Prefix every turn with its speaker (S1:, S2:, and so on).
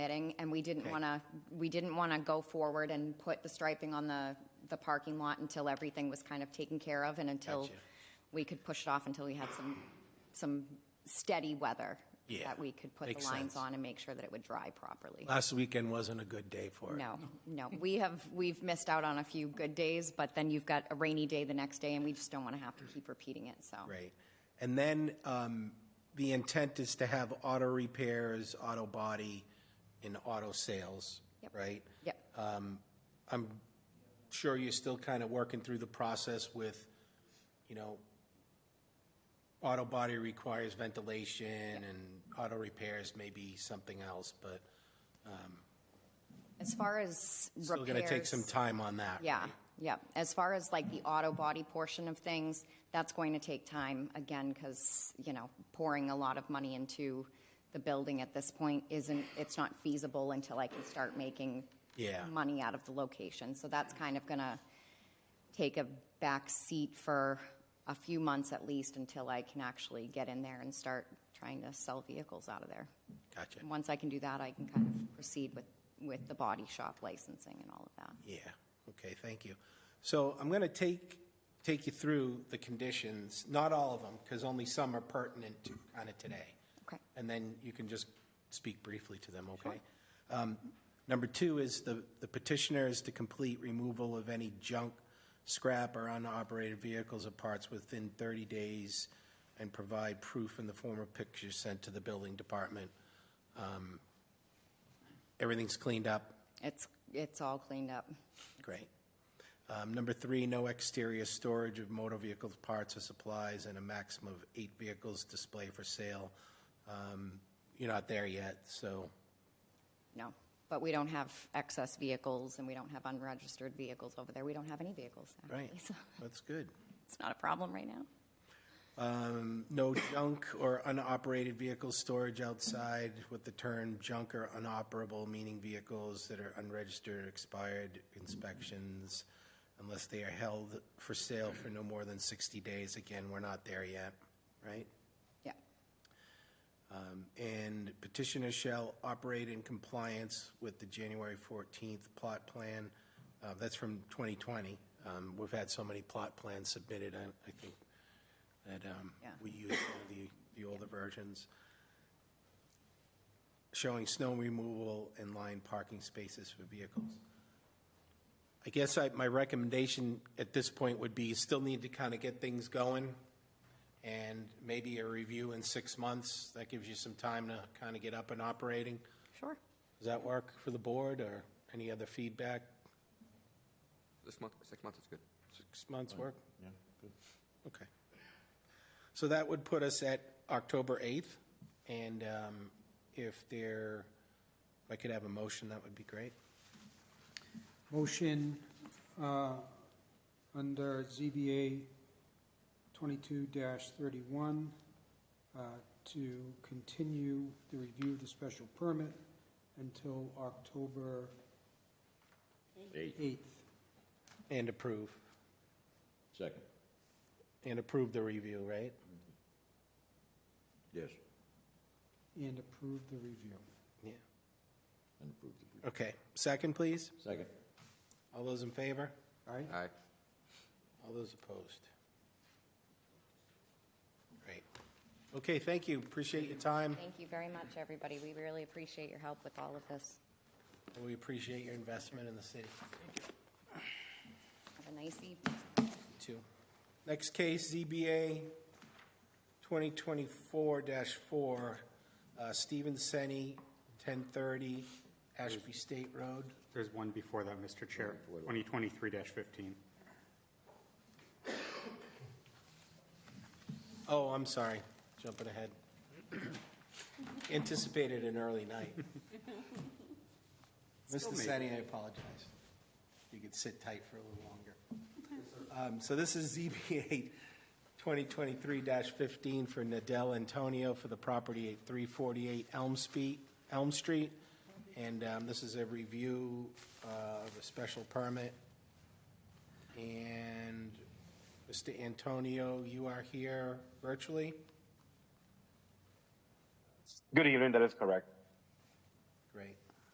S1: permitting, and we didn't
S2: Okay.
S1: want to, we didn't want to go forward and put the striping on the, the parking lot until everything was kind of taken care of and until
S2: Gotcha.
S1: we could push it off until we had some, some steady weather.
S2: Yeah,
S1: That we could put the
S2: makes
S1: lines
S2: sense.
S1: on and make sure that it would dry properly.
S2: Last weekend wasn't a good day for it.
S1: No, no, we have, we've missed out on a few good days, but then you've got a rainy day the next day, and we just don't want to have to keep repeating it, so.
S2: Right. And then um, the intent is to have auto repairs, auto body, and auto sales,
S1: Yep.
S2: right?
S1: Yep,
S2: Uh, I'm sure you're still kind of working through the process with, you know, auto body requires ventilation and auto repairs may be something else, but
S1: as far as repairs.
S2: still going to take some time on that.
S1: Yeah, yeah. As far as like the auto body portion of things, that's going to take time again because, you know, pouring a lot of money into the building at this point isn't, it's not feasible until I can start making
S2: Yeah.
S1: money out of the location. So that's kind of going to take a back seat for a few months at least until I can actually get in there and start trying to sell vehicles out of there.
S2: Gotcha.
S1: And once I can do that, I can kind of proceed with, with the body shop licensing and all of that.
S2: Yeah, okay, thank you. So I'm going to take, take you through the conditions, not all of them, because only some are pertinent to kind of today.
S1: Okay.
S2: And then you can just speak briefly to them, okay? Um, Number two is the the petitioner is to complete removal of any junk, scrap, or unoperated vehicles or parts within 30 days and provide proof in the form of pictures sent to the building department. Um, Everything's cleaned up,
S1: It's, it's all cleaned up.
S2: Great. Um, Number three, no exterior storage of motor vehicles, parts, or supplies, and a maximum of eight vehicles display for sale. Um, You're not there yet, so,
S1: No, but we don't have excess vehicles and we don't have unregistered vehicles over there. We don't have any vehicles,
S2: right,
S1: actually. So
S2: that's good.
S1: it's not a problem right now.
S2: Um, No junk or unoperated vehicle storage outside with the term junk or unoperable, meaning vehicles that are unregistered, or expired inspections, unless they are held for sale for no more than 60 days. Again, we're not there yet, right?
S1: Yeah,
S2: Um, And petitioner shall operate in compliance with the January 14th plot plan. Uh, That's from 2020. Um, We've had so many plot plans submitted, I I think, that um,
S1: Yeah.
S2: we use one of the the older versions. Showing snow removal and lined parking spaces for vehicles. I guess I, my recommendation at this point would be, you still need to kind of get things going, and maybe a review in six months, that gives you some time to kind of get up and operating.
S1: sure.
S2: Does that work for the board, or any other feedback?
S3: This month, six months is good.
S2: Six months work?
S4: Yeah, good.
S2: Okay. So that would put us at October 8th, and um, if there, if I could have a motion, that would be great.
S5: Motion uh, under ZBA 22-31 uh, to continue the review of the special permit until October
S4: Eight,
S5: 8th.
S2: And approve,
S4: second,
S2: and approve the review, right?
S4: yes,
S5: And approve the review.
S2: Yeah.
S4: and approve the brief.
S2: Okay. Second, please.
S4: Second,
S2: All those in favor?
S5: All right?
S3: Aye.
S2: All those opposed? Great. Okay, thank you. Appreciate your time.
S1: Thank you very much, everybody. We really appreciate your help with all of this.
S2: We appreciate your investment in the city,
S1: Have a nice evening.
S2: too. Next case, ZBA 2024-4, uh, Stephen Senni, 1030 Ashby State Road.
S6: There's one before that, Mr. Chair, 2023-15.
S2: Oh, I'm sorry, jumping ahead. Anticipated an early night. Mr. Senni, I apologize. You could sit tight for a little longer. Um, So this is ZBA 2023-15 for Nadel Antonio for the property at 348 Elm Street, Elm Street. And um, this is a review uh, of a special permit. And Mr. Antonio, you are here virtually?
S7: Good evening, that is correct.
S2: Great.